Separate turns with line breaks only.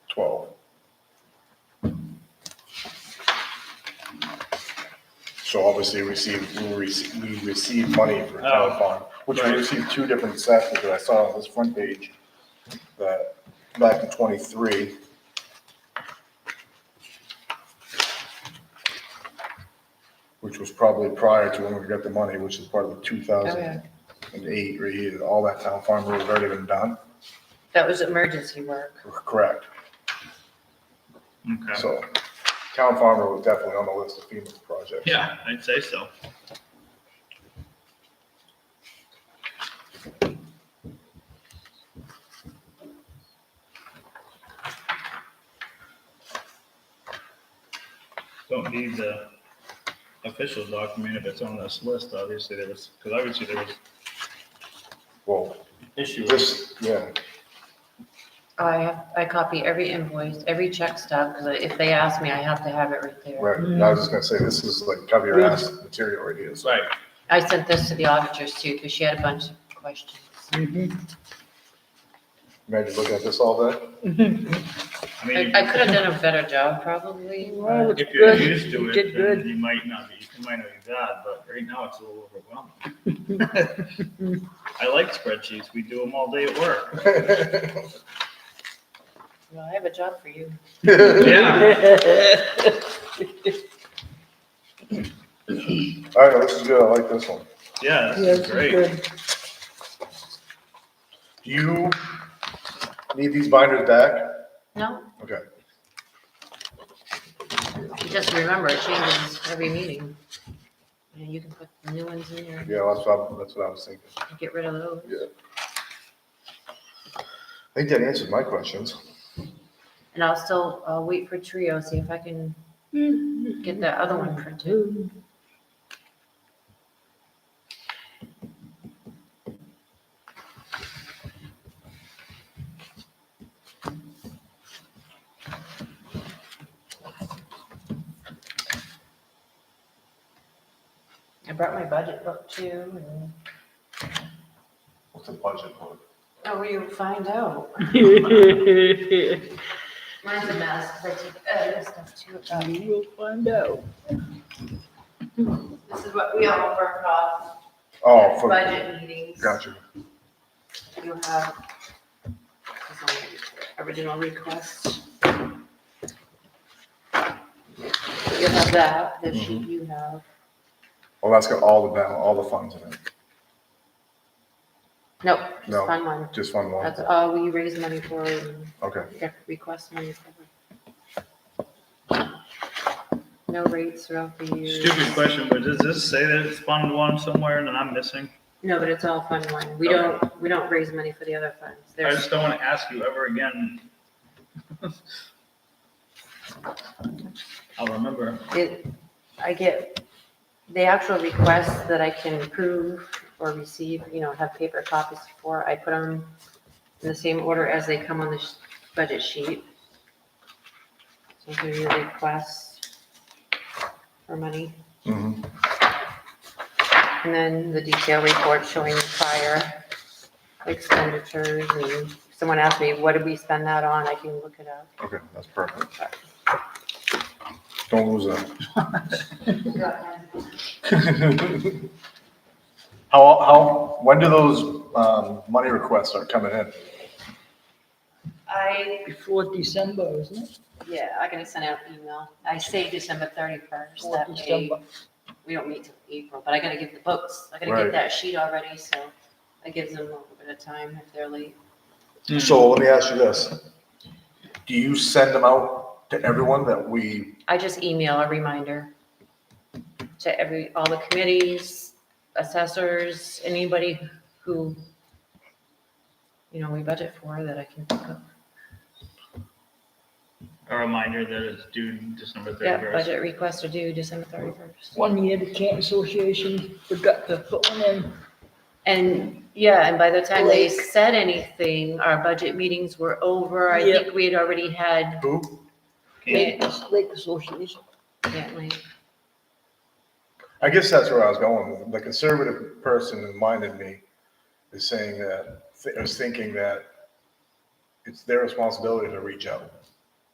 twelve. So obviously we received, we received, we received money for town fund, which we
Right.
received two different sets, because I saw on this front page that back in twenty-three. Which was probably prior to when we got the money, which is part of the two thousand and eight, or eight, all that town farm work had already been done,
That was emergency work.
correct?
Okay.
So town farmer was definitely on the list of FEMA projects.
Yeah, I'd say so. Don't need the official document if it's on this list, obviously, there was, because obviously there was
Well,
issue.
this, yeah,
I have, I copy every invoice, every check stub, because if they ask me, I have to have it right there.
right. And I was just gonna say, this is like cover your ass material right here. so-
Right,
I sent this to the auditors too, because she had a bunch of questions.
Imagine looking at this all day.
I
I,
mean,
I could have done a better job probably.
Well,
but-
if
it's
you're
good.
used to
You
it,
did
then
good.
you might not be, it might not be bad, but right now it's a little overwhelming. I like spreadsheets, we do them all day at work.
Well, I have a job for you.
Yeah.
All right, this is good. I like this one.
Yeah,
Yeah,
this
it's
is great.
good.
Do you need these binders back?
No,
Okay,
just remember, it changes every meeting. And you can put the new ones in there,
yeah, that's what, I- that's what I was thinking.
and get rid of those.
Yeah. I think that answers my questions.
And I'll still, uh wait for Trio, see if I can get that other one printed. I brought my budget book too, and,
What's the budget for?
oh, you'll find out.
You
Mine's a mess, because I took edit stuff too. um,
will find out.
This is what we all work off,
Oh, for,
budget meetings.
gotcha.
You have original request. You have that,
Mm-hmm.
the sheet you have.
Well, that's got all the, ba- all the funds in it.
Nope,
No.
just fund one.
Just one more.
That's all we raise money for and
Okay,
rec- request money for. No rates throughout the year.
Stupid question, but does this say that it's Fund One somewhere and that I'm missing?
No, but it's all fund one. We don't, we don't raise money for the other funds.
I
There's,
just don't want to ask you ever again. I'll remember.
it, I get the actual requests that I can approve or receive, you know, have paper copies for, I put them in the same order as they come on the sh- budget sheet. So here are your requests for money,
mhm,
and then the detailed report showing prior expenditures, and if someone asked me, what did we spend that on, I can look it up.
okay, that's perfect. Don't lose that. How, how, when do those, um, money requests start coming in?
I
Before December, isn't it?
Yeah, I'm gonna send out an email. I say December thirty-first,
Before
that way,
December.
we don't meet till April, but I gotta give the books, I gotta
Right.
get that sheet already, so I give them a little bit of time if they're late.
Mm-hmm. So let me ask you this. Do you send them out to everyone that we,
I just email a reminder to every, all the committees, assessors, anybody who, you know, we budget for that I can think of.
A reminder that it's due December
Yeah,
thirty-first.
budget requests are due December thirty-first.
One year, the Kent Association forgot to put one in.
And, yeah, and by the time they
Blake.
said anything, our budget meetings were over. I
Yeah.
think we had already had
who?
Yeah.
Lake, Lake Association.
Yeah, like,
I guess that's where I was going. The conservative person in mind in me is saying that, is thinking that it's their responsibility to reach out.